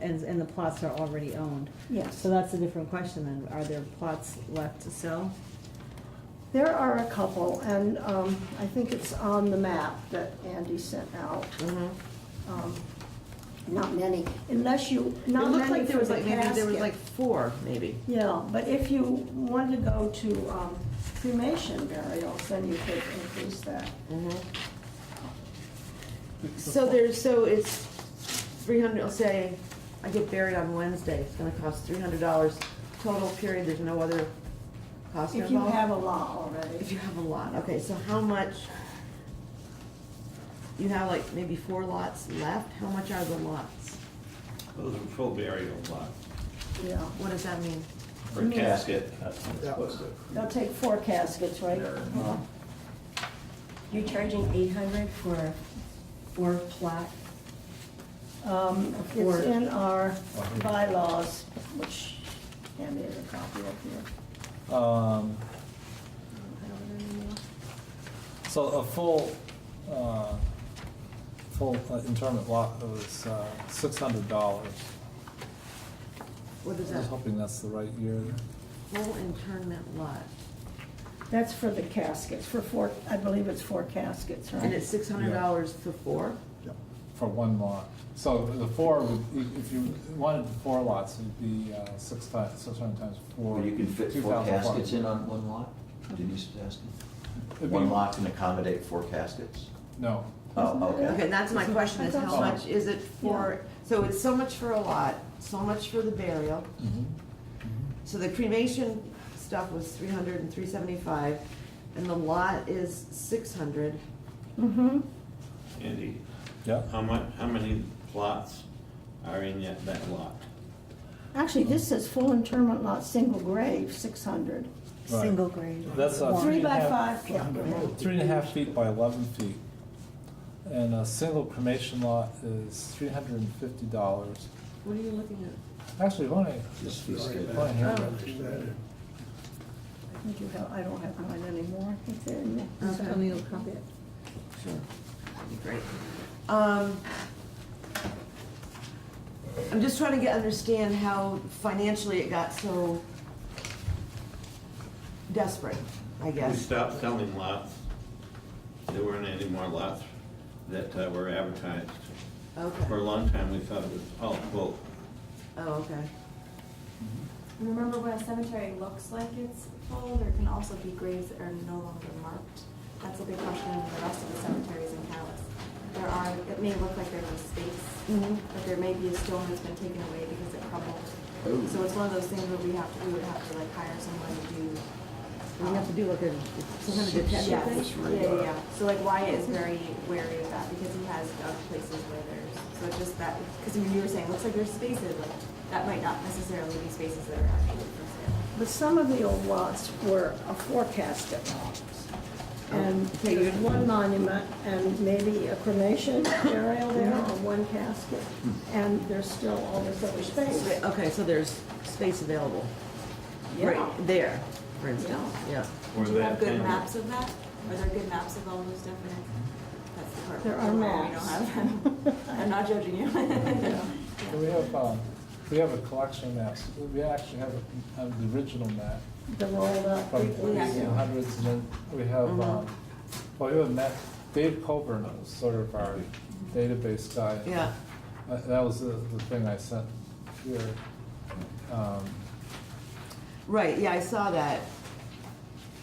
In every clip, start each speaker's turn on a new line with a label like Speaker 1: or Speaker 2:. Speaker 1: And, and the plots are already owned.
Speaker 2: Yes,
Speaker 1: So that's a different question then. Are there plots left to sell?
Speaker 2: there are a couple, and um, I think it's on the map that Andy sent out. Um, Not many, unless you,
Speaker 3: Mm-hmm. It
Speaker 2: not
Speaker 3: looked
Speaker 2: many
Speaker 3: like there
Speaker 2: for
Speaker 3: was
Speaker 2: the
Speaker 3: like, maybe there was like
Speaker 2: casket.
Speaker 3: four, maybe.
Speaker 2: Yeah, but if you want to go to um, cremation burials, then you could increase that.
Speaker 3: Mm-hmm. So there's, so it's three hundred, I'll say, I get buried on Wednesday, it's gonna cost three hundred dollars total period, there's no other cost
Speaker 2: If you
Speaker 3: involved?
Speaker 2: have a lot already.
Speaker 3: If you have a lot, okay, so how much? You have like maybe four lots left, how much are the lots?
Speaker 4: Those are full burial lot,
Speaker 2: Yeah,
Speaker 3: What does that mean?
Speaker 4: or casket, that's what it's
Speaker 5: Yeah.
Speaker 4: supposed to.
Speaker 2: they'll take four caskets, right?
Speaker 4: There.
Speaker 6: You're charging eight hundred for a four plot?
Speaker 2: Um,
Speaker 6: Or-
Speaker 2: It's in our bylaws, which Andy has a copy of here.
Speaker 5: Um,
Speaker 2: I don't have it anymore.
Speaker 5: so a full, uh, full uh, interment lot was, uh, six hundred dollars.
Speaker 3: What is
Speaker 5: I was
Speaker 3: that?
Speaker 5: hoping that's the right year.
Speaker 3: Full internment lot,
Speaker 2: That's for the caskets, for four, I believe it's four caskets, right?
Speaker 3: and it's six hundred dollars for four?
Speaker 5: For one lot. So the four would, if- if you wanted four lots, it'd be, uh, six times, six hundred times four.
Speaker 7: Well, you can fit four
Speaker 5: 2,400.
Speaker 7: caskets in on one lot? Denise is asking.
Speaker 5: It'd
Speaker 7: One
Speaker 5: be-
Speaker 7: lot can accommodate four caskets?
Speaker 5: No,
Speaker 8: Mm-hmm.
Speaker 7: Oh,
Speaker 3: Okay,
Speaker 7: okay.
Speaker 3: and that's my question, is how
Speaker 5: Oh.
Speaker 3: much is it for, so it's so much for a lot, so much for the burial.
Speaker 1: Mm-hmm.
Speaker 3: So the cremation stuff was three hundred and three seventy-five, and the lot is six hundred.
Speaker 2: Mm-hmm.
Speaker 4: Andy,
Speaker 5: yeah,
Speaker 4: how much, how many plots are in that, that lot?
Speaker 2: Actually, this says full interment lot, single grave, six hundred.
Speaker 5: Right.
Speaker 1: Single grade.
Speaker 5: that's a.
Speaker 2: Three by
Speaker 5: and a half-
Speaker 2: five plot grave.
Speaker 5: Three and a half feet by eleven feet. And a single cremation lot is three hundred and fifty dollars.
Speaker 3: What are you looking at?
Speaker 5: Actually, why don't
Speaker 7: This fee
Speaker 5: I,
Speaker 7: schedule.
Speaker 5: why don't I have it?
Speaker 2: I think you have, I don't have mine anymore, I think they're in
Speaker 3: Uh,
Speaker 2: there.
Speaker 1: So Tony will copy it.
Speaker 3: Sure. That'd be great. Um, I'm just trying to get, understand how financially it got so desperate, I
Speaker 4: We
Speaker 3: guess.
Speaker 4: stopped selling lots. There weren't any more lots that uh, were advertised.
Speaker 3: Okay.
Speaker 4: For a long time, we thought it was all full.
Speaker 3: Oh, okay.
Speaker 8: Remember, when a cemetery looks like it's full, there can also be graves that are no longer marked. That's a big question in the rest of the cemeteries in Calais. There are, it may look like there's a space, but there may be a stone that's been taken away because it crumbled.
Speaker 7: Oh.
Speaker 8: So it's one of those things where we have, to we would have to like hire someone to do.
Speaker 3: We have to do like a, some kind of detective
Speaker 8: Yes, yeah,
Speaker 3: thing?
Speaker 7: Surface
Speaker 8: yeah,
Speaker 7: radar.
Speaker 8: yeah. So like Wyatt is very wary of that because he has dug places where there's, so it's just that, because you were saying, looks like there's spaces, like, that might not necessarily be spaces that are actually for sale.
Speaker 2: But some of the old lots were a forecast at lots.
Speaker 3: Oh.
Speaker 2: And
Speaker 3: Okay,
Speaker 2: there's
Speaker 3: you-
Speaker 2: one monument and maybe a cremation burial there or one casket. And there's still all this other space.
Speaker 3: Okay, so there's space available,
Speaker 2: Yeah.
Speaker 3: right there, for instance, yeah.
Speaker 4: Or
Speaker 8: Do you have
Speaker 4: that
Speaker 8: good
Speaker 4: family.
Speaker 8: maps of that? Are there good maps of all those definite? That's the part.
Speaker 2: There are
Speaker 8: where We
Speaker 2: maps.
Speaker 8: don't have them. I'm not judging you.
Speaker 5: So we have, um, we have a collection of maps, we actually have, a- have the original map
Speaker 2: The rolled up.
Speaker 5: from
Speaker 8: We- we
Speaker 5: the
Speaker 8: have- Mm-hmm.
Speaker 5: eighteen hundreds, and then we have, um, well, we have a map, Dave Coburn was sort of our database guy.
Speaker 3: Yeah,
Speaker 5: Uh, That was the, the thing I sent here. Um,
Speaker 3: right, yeah, I saw that,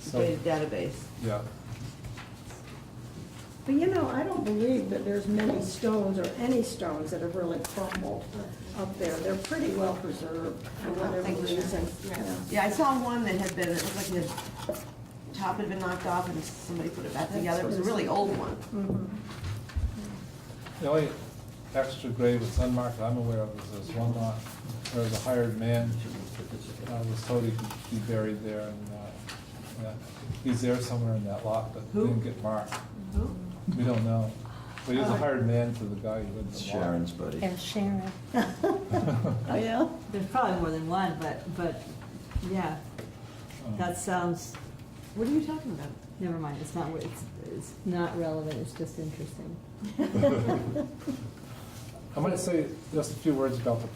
Speaker 5: So-
Speaker 3: data database.
Speaker 5: yeah,
Speaker 2: But you know, I don't believe that there's many stones or any stones that have really crumbled up there. They're pretty well preserved for whatever
Speaker 3: Thank you.
Speaker 2: reason.
Speaker 8: Yeah.
Speaker 2: Yeah.
Speaker 3: Yeah, I saw one that had been, it looked like the top had been knocked off and somebody put it back together, it was a really old one.
Speaker 5: the only extra grave that's unmarked I'm aware of is this one lot, where the hired man uh, was told he could be buried there, and, uh, yeah, he's there somewhere in that lot, but
Speaker 3: Who?
Speaker 5: didn't get marked. We don't know, but he
Speaker 2: Uh-huh.
Speaker 5: was a hired man to the guy who lived in the lot.
Speaker 7: It's Sharon's buddy.
Speaker 6: Yeah, Sharon.
Speaker 2: Oh, yeah?
Speaker 1: There's probably more than one, but, but, yeah,
Speaker 5: Um,
Speaker 1: that sounds,
Speaker 3: What are you talking about?
Speaker 1: never mind, it's not, it's, it's not relevant, it's just interesting.
Speaker 5: I might say just a few words about the